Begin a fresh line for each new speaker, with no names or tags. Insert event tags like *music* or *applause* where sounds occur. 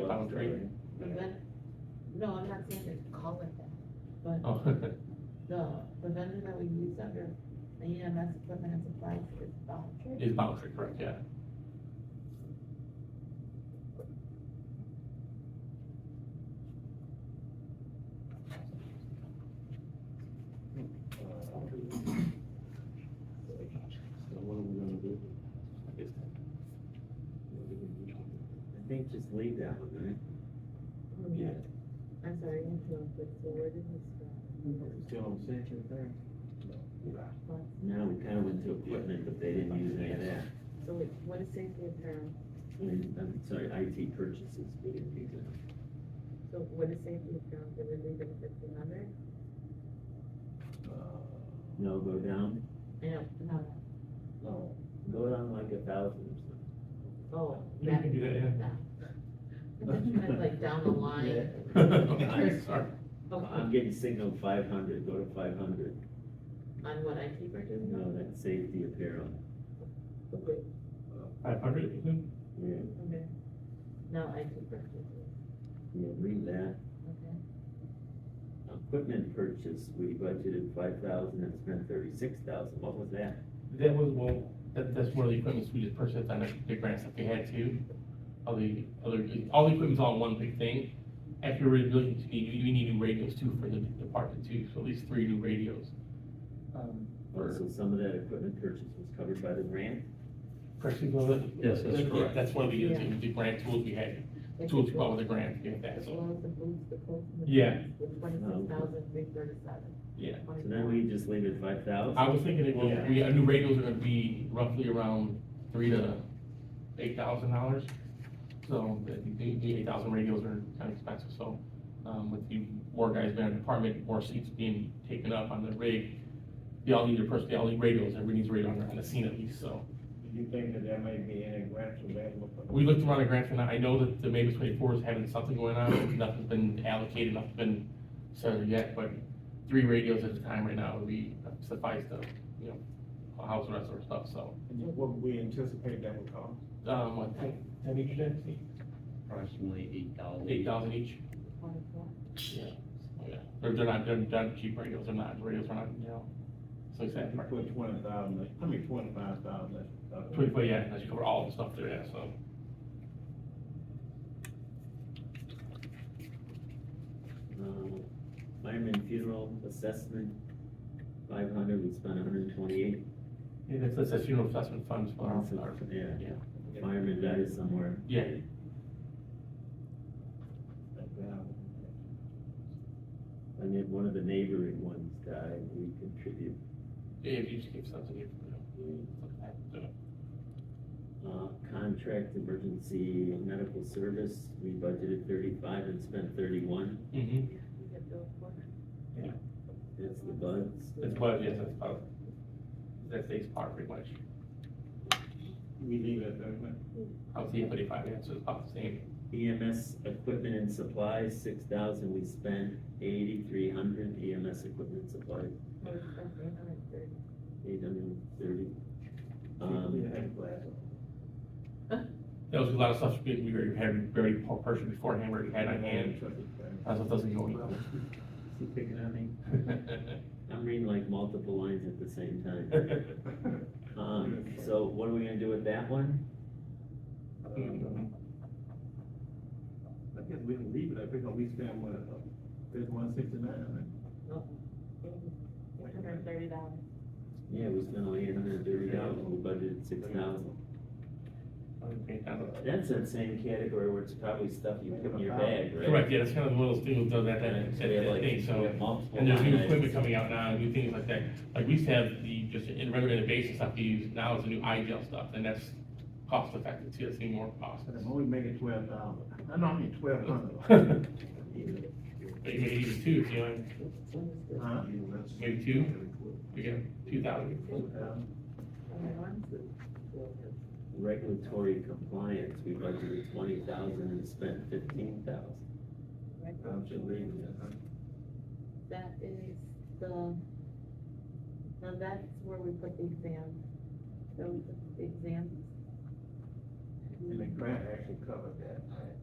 Palm tree?
Ravenna, no, I'm not saying to call it that, but
Oh, *laughs*
the Ravenna that we use under the EMS equipment and supplies is voucher.
is palm tree, correct, yeah.
So what are we gonna do? I think just leave that one, right?
Yeah.
I'm sorry, I interrupted, so where did we
See what I'm saying? Now, we kinda went to equipment, but they didn't use any of that.
So wait, what is safety apparel?
And, I'm sorry, IT purchases, we didn't use that.
So what is safety apparel, did we leave it at fifteen hundred?
No, go down,
Yeah, no,
no, go down like a thousand
oh.
You can do that, yeah.
*laughs*
or something.
Like down the
*laughs*
line.
Okay,
*laughs*
sorry.
Okay,
I'm getting signal five hundred, go to five hundred,
on what I keep or do
no, that's safety apparel,
Okay.
Five hundred, you think?
yeah,
Okay. No, I keep purchases,
yeah, read that.
okay.
Equipment purchase, we budgeted five thousand and spent thirty-six thousand, what was that?
That was one, that, that's one of the equipments we just purchased on the, the grants that we had too. All the, other, all the equipment's all in one big thing. After we're looking to need, we need new radios too for the department too, so at least three new radios. Um, for-
So some of that equipment purchase was covered by the grant?
Correct, you know that?
Yes, that's
Yeah,
correct.
That's one of the, using the grant tools we had, tools we bought with the grant, yeah,
The
that's all.
clothes, the boots, the coats. and the
Yeah.
pants, The twenty-six thousand, three thirty-seven.
Yeah.
So then we just leave it five thousand?
I was thinking it will, we, our new radios are gonna be roughly around three to eight thousand dollars. So the, the, the eight thousand radios are kind of expensive, so, um, with the more guys being in the department, more seats being taken up on the rig, they all need their person, they all need radios, everybody needs a radio on the, on the scene at least, so.
Do you think that there may be any grants available for?
We looked around at grants and I know that the Mavis twenty-four is having something going on, nothing's been allocated, nothing's been settled yet, but three radios at a time right now would be suffice to, you know, house the rest of our stuff, so.
And What we anticipate that would cost?
Um, what, ten, ten each then?
approximately eight thousand.
Eight thousand each?
Twenty-four.
Yeah. They're, they're not, they're not cheap radios, they're not, radios are not, you know, so it's that
You
part.
Put twenty thousand, I mean twenty-five thousand.
Twenty-four, yeah, that's cover all the stuff there, yeah, so.
Um, Fireman funeral assessment, five hundred, we spent hundred and twenty-eight.
Yeah, that's, that's a funeral assessment funds for our, our,
Yeah,
yeah.
fireman died somewhere.
yeah,
And then one of the neighboring ones died, we contribute.
yeah, if you just give something, you know, look at that, do it.
Uh, contract emergency medical service, we budgeted thirty-five and spent thirty-one,
Mm-hmm,
You get those four.
that's the buds.
that's what, yes, that's part, that's the part pretty much.
We leave it that way.
I would say thirty-five, yeah, so it's about the same.
EMS E equipment and supplies, six thousand, we spent eighty-three hundred EMS equipment and supplies,
Or it's like 830.
eight hundred and thirty.
We
Um,
have glass.
That was a lot of stuff we we already had, we already purchased beforehand, we already had on
*laughs*
hand, that's what doesn't go *laughs*
she picking on me?
anywhere.
I'm reading like multiple lines at the same time. Um, so what are we gonna do with that one?
I guess we can leave it, I think we spend what, uh, there's one sixty-nine,
Eight hundred and thirty dollars.
Yeah, we spent only eight hundred and thirty dollars, we budgeted six thousand. That's that same category where it's probably stuff you put in your bag, right?
Correct, yeah, that's kind of one of those things that, that,
And so
that,
we have
that
like,
thing,
we
so.
have multiple
And there's new
line
equipment
items.
coming out now, new things like that, like we used to have the, just in regular basis stuff we use, now it's the new eye gel stuff, and that's cost effective too, it's even more cost. *laughs*
and I'm only making twelve dollars, I know I mean twelve
But
hundred.
you may use two, you know,
Huh?
maybe two, we get two thousand.
Okay, one,
Regulatory compliance, we budgeted twenty thousand and spent fifteen thousand.
right?
I'm just leaving it, huh?
That is the, now that's where we put the exams. So we put the exams.
And the grant actually covered that.